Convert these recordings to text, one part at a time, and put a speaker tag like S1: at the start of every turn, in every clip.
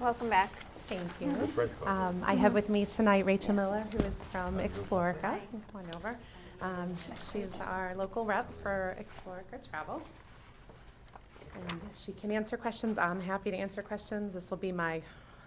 S1: Welcome back.
S2: Thank you. Um, I have with me tonight Rachel Miller, who is from Explorica. You can Come on over. Um, She's our local rep for Explorica Travel. And she can answer questions. I'm happy to answer questions. This will be my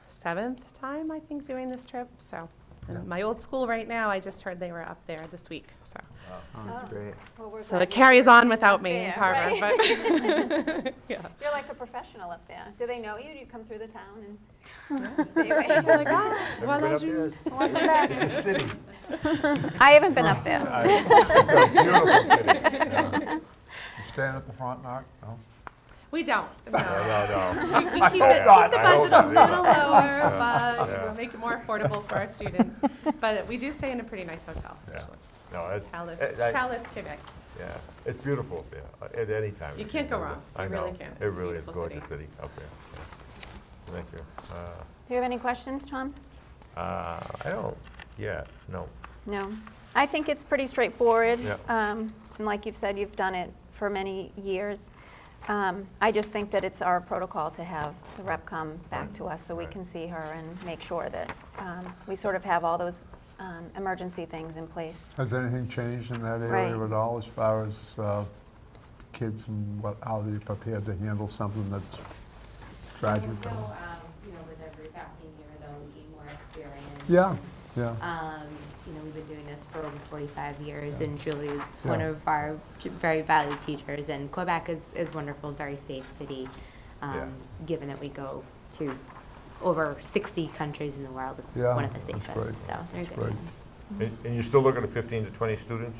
S2: seventh time, I think, doing this trip, so. and My old school right now, I just heard they were up there this week, so.
S3: Oh, that's
S1: Oh.
S3: great.
S1: Well, we're
S2: So
S1: glad
S2: it
S1: you're
S2: carries
S1: here.
S2: on without me in
S1: Yeah,
S2: Carver,
S1: right.
S2: but, yeah.
S1: You're like a professional up there. Do they know you? Do you come through the town and?
S2: They're
S1: Anyway.
S2: like, "Ah,
S3: Haven't been
S2: voilà,
S3: up
S2: Julie."
S3: there?
S1: Welcome back.
S3: It's a city.
S1: I haven't been up there.
S3: Uh, It's a beautiful city. Yeah. You stand at the front, Mark? No?
S2: We don't, no.
S3: No, no, no.
S2: We we keep it, keep
S3: not.
S2: the
S3: I hope
S2: budget a
S3: not.
S2: little lower, but
S3: Yeah.
S2: we'll make it more affordable for our students. But we do stay in a pretty nice hotel,
S3: Yeah.
S2: actually.
S3: No, it's.
S2: Palace,
S3: it- that-
S2: Palace Quebec.
S3: Yeah, it's beautiful, up there, uh, at any time.
S2: You
S3: if
S2: can't go
S3: go there.
S2: wrong.
S3: I
S2: You really
S3: know.
S2: can't.
S3: It
S2: It's a
S3: really is
S2: beautiful
S3: gorgeous city up there. Yeah. Thank you. Uh,
S1: Do you have any questions, Tom?
S3: uh, I don't, yeah, no.
S1: No. I think it's pretty straightforward.
S3: Yeah.
S1: Um, And like you've said, you've done it for many years. Um, I just think that it's our protocol to have the rep come back to us so we
S3: Right.
S1: can see her and make sure that um, we sort of have all those um, emergency things in place.
S4: Has anything changed in that
S1: Right.
S4: area at all as far as uh, kids and what, how they're prepared to handle something that's tragic?
S5: Well, um, You know, with every passing year, though, we gain more experience.
S4: Yeah, yeah.
S5: Um, You know, we've been doing this for over 45 years, and Julie is one
S4: Yeah.
S5: of our j- very valued teachers, and Quebec is, is wonderful, very safe city, um,
S3: Yeah.
S5: given that we go to over 60 countries in the world, it's
S4: Yeah,
S5: one of the
S4: that's
S5: safest,
S4: great.
S5: so they're
S4: That's
S5: good
S4: great.
S5: ones.
S2: Mm-hmm.
S3: And and you're still looking at 15 to 20 students?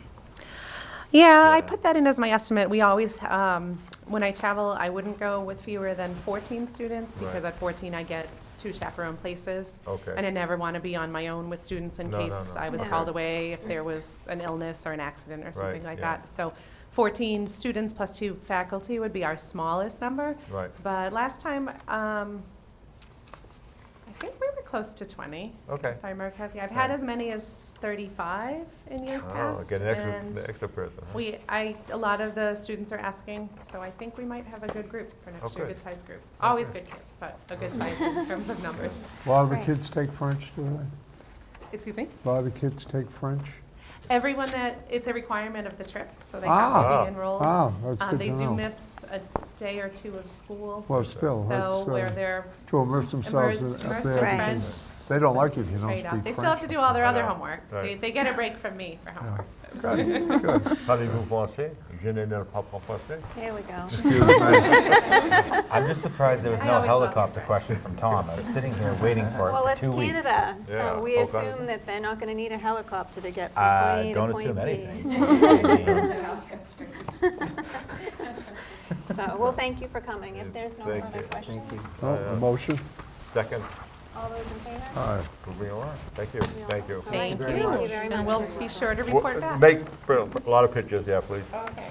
S2: Yeah, I
S3: Yeah.
S2: put that in as my estimate. We always, um, when I travel, I wouldn't go with fewer than 14 students because
S3: Right.
S2: at 14 I get two chaperone places.
S3: Okay.
S2: And I never want to be on my own with students in
S3: No, no,
S2: case
S3: no.
S2: I was
S1: No.
S2: called away, if there was an illness or an accident or something
S3: Right,
S2: like
S3: yeah.
S2: that. So 14 students plus two faculty would be our smallest number.
S3: Right.
S2: But last time, um, I think we were close to 20,
S3: Okay.
S2: if I remember correctly. I've had
S3: Right.
S2: as many as 35 in years
S3: Oh,
S2: past.
S3: get an extra,
S2: and
S3: an extra person, huh?
S2: we, I, a lot of the students are asking, so I think we might have a good group for
S3: Oh,
S2: next year, a
S3: good.
S2: good sized group. Always
S3: Okay.
S2: good kids, but a good size in terms of numbers.
S4: A lot of the
S1: Right.
S4: kids take French, do they?
S2: Excuse me?
S4: A lot of the kids take French?
S2: Everyone that, it's a requirement of the trip, so they have to
S3: Ah.
S2: be enrolled.
S4: Ah, that's
S2: Um,
S4: good
S2: They
S4: to
S2: do
S4: know.
S2: miss a day or two of school,
S4: Well, still,
S2: so where
S4: that's, uh,
S2: they're
S4: to immerse themselves
S2: immersed,
S4: in- up
S2: immersed
S4: there.
S2: in
S1: Right.
S2: French.
S4: because They don't like it if you
S2: It's
S4: don't
S2: right
S4: speak
S2: up.
S4: French.
S2: They still have to do all their
S3: I
S2: other
S3: know.
S2: homework. They,
S3: Right.
S2: they get a break from me for homework.
S4: Good, good.
S3: Parlez-vous français? Je n'ai pas parlé français.
S1: Here we go.
S6: I'm just surprised there was
S2: I
S6: no
S2: always thought
S6: helicopter
S2: that.
S6: question from Tom. I was sitting here waiting for it
S1: Well,
S6: for
S1: it's
S6: two weeks.
S1: Canada,
S3: Yeah,
S1: so we
S3: okay.
S1: assume that they're not going to need a helicopter to get from
S6: Uh,
S1: point A
S6: don't
S1: to
S6: assume
S1: point B.
S6: anything.
S1: So, well, thank you for coming. If there's no
S3: Thank
S1: further
S3: you.
S1: questions,
S4: Oh, a Motion?
S3: Second,
S1: all those in favor?
S4: All right.
S3: moving along. Thank you, thank you.
S1: All right,
S2: Thank you.
S1: Thank you very much.
S2: And we'll be sure to
S3: Wha-
S2: report back.
S3: Make pr- a lot of pictures, yeah, please. Okay.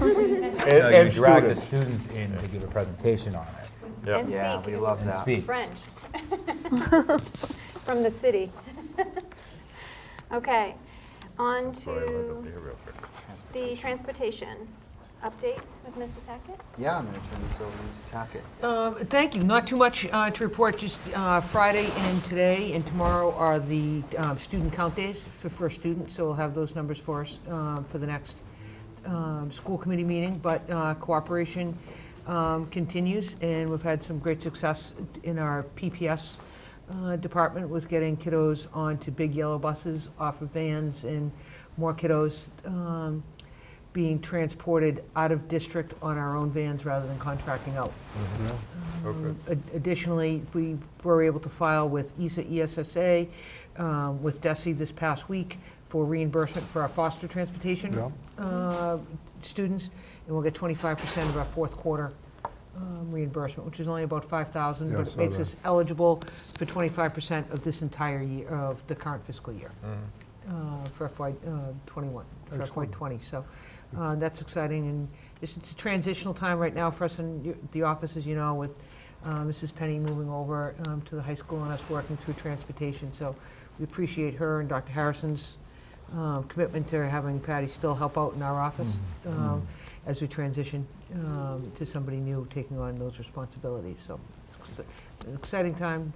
S6: No,
S3: And
S6: you drag the
S3: students.
S6: students in to give a presentation on it
S3: Yeah.
S1: And
S7: Yeah,
S1: speak
S7: we love
S6: and
S7: that.
S6: speak.
S1: French. From the city. Okay, on
S3: Sorry, I went up
S1: to
S3: here real quick.
S1: the transportation update with Mrs. Hackett.
S7: Yeah, I'm going to turn this over to Mrs. Hackett.
S8: Um, Thank you. Not too much uh, to report, just uh, Friday and today and tomorrow are the um, student count days for first student, so we'll have those numbers for us um, for the next um, school committee meeting. But uh, cooperation um, continues, and we've had some great success in our PPS uh, department with getting kiddos onto big yellow buses, off of vans, and more kiddos um, being transported out of district on our own vans rather than contracting out.
S3: Okay.
S8: Um, Ad- Additionally, we were able to file with E ESA, ESSA, um, with DESI this past week for reimbursement for our foster
S4: Yeah.
S8: transportation uh, students, and we'll get 25% of our fourth quarter um, reimbursement, which is only about 5,000,
S4: Yeah, I
S8: but it
S4: saw
S8: makes
S4: that.
S8: us eligible for 25% of this entire year, of the current fiscal year
S3: Mm-hmm.
S8: uh, for FY '21, for FY
S4: Excellent.
S8: '20. So uh, that's exciting, and it's it's a transitional time right now for us in y- the office, as you know, with uh, Mrs. Penny moving over um, to the high school and us working through transportation. So we appreciate her and Dr. Harrison's um, commitment to having Patty still help out in our office
S6: Mm-hmm.
S8: um, as we transition um, to somebody new taking on those responsibilities, so it's Ex- Exciting time